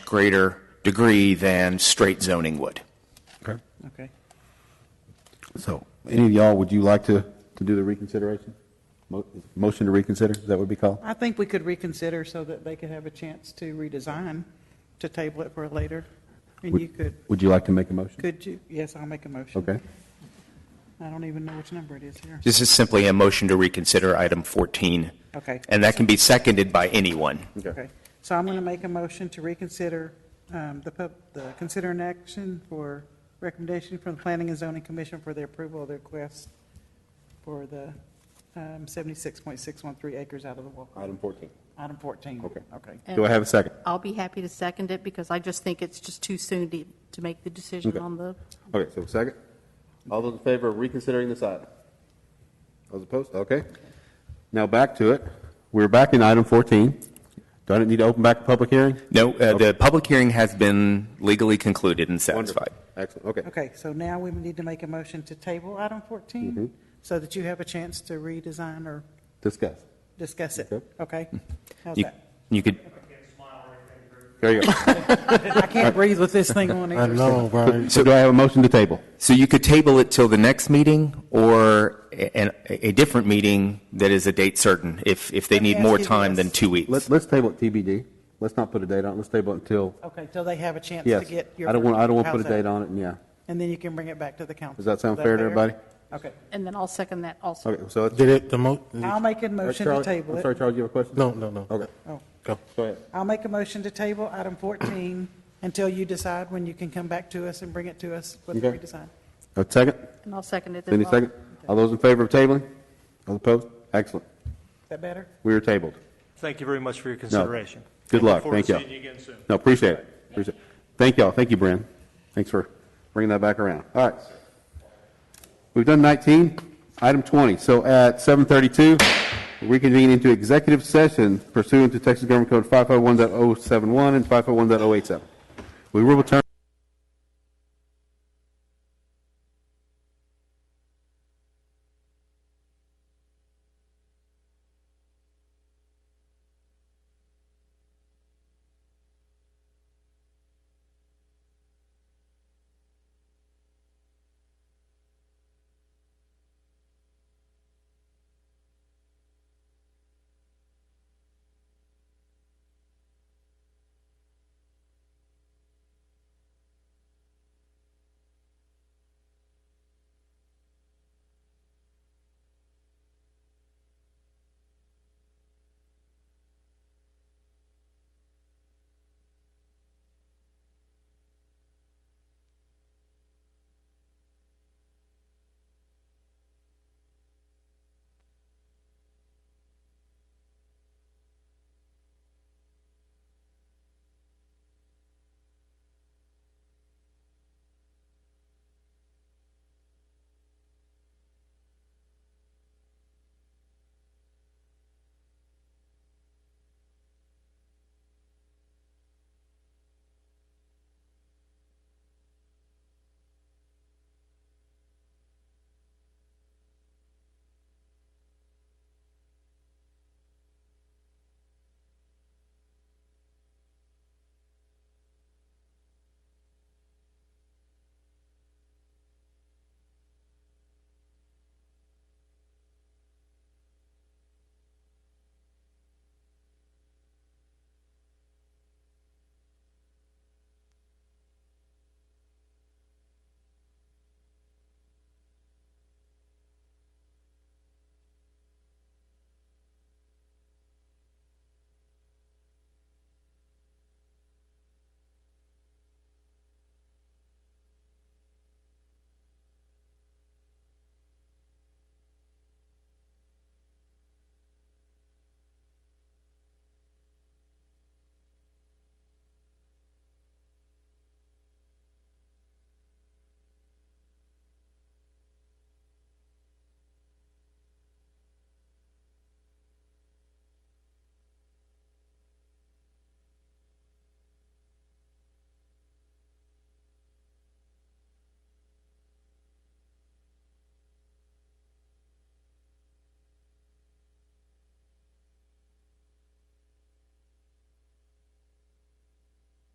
greater degree than straight zoning would. Okay. Okay. So, any of y'all, would you like to, to do the reconsideration? Mo- Motion to reconsider, is that what we call? I think we could reconsider so that they could have a chance to redesign, to table it for later. And you could, Would you like to make a motion? could you, yes, I'll make a motion. Okay. I don't even know which number it is here. This is simply a motion to reconsider item 14. Okay. And that can be seconded by anyone. Okay, so I'm going to make a motion to reconsider um, the, pub- the consider an action for recommendation from the Planning and Zoning Commission for the approval of the request for the um, 76.613 acres out of the Walker. Item 14. Item 14. Okay. Okay. Do I have a second? I'll be happy to second it because I just think it's just too soon to, to make the decision Okay. on the, Okay, so second. All those in favor of reconsidering this item? Those opposed? Okay. Now back to it. We're back in item 14. Do I need to open back the public hearing? No, uh, the public hearing has been legally concluded and Wonderful. satisfied. Excellent, okay. Okay, so now we need to make a motion to table item Mm-hmm. 14 so that you have a chance to redesign or Discuss. discuss it. Okay. Okay? How's You- that? You could, There you go. I can't breathe with this thing on I either. know, right? So do I have a motion to table? so you could table it till the next meeting or a, an- a different meeting that is a date certain, if, if they Let me need more ask you time this. than two weeks. Let's, let's table it TBD. Let's not put a date on it. Let's table it until, Okay, till they have a chance to yes. get your. I don't want, I don't want to put How's a that? date on it, yeah. And then you can bring it back to the council. Does that sound Is fair to everybody? Okay. and then I'll second that also. Okay, so it's. Did it, the mo, I'll make a motion to Charlie- table I'm sorry, it. Charles, you have a question? no, no, no. Okay, Oh, Go. go ahead. I'll make a motion to table item 14 until you decide when you can come back to us and bring it to us with the Okay. redesign. A second? And I'll second it as Any well. second? All those in favor of tabling? All opposed? Excellent. Is that better? We are tabled. Thank you very much for your consideration. Good luck. Look forward Thank to you. seeing you again soon. No, appreciate it. Appreciate it. Thank y'all. Thank you, Bren. Thanks for bringing that back around. All right. We've done 19. Item 20. So at 7:32, we reconvene into executive oh session pursuant to Texas Government Code 551.071 and 551.087. We will return.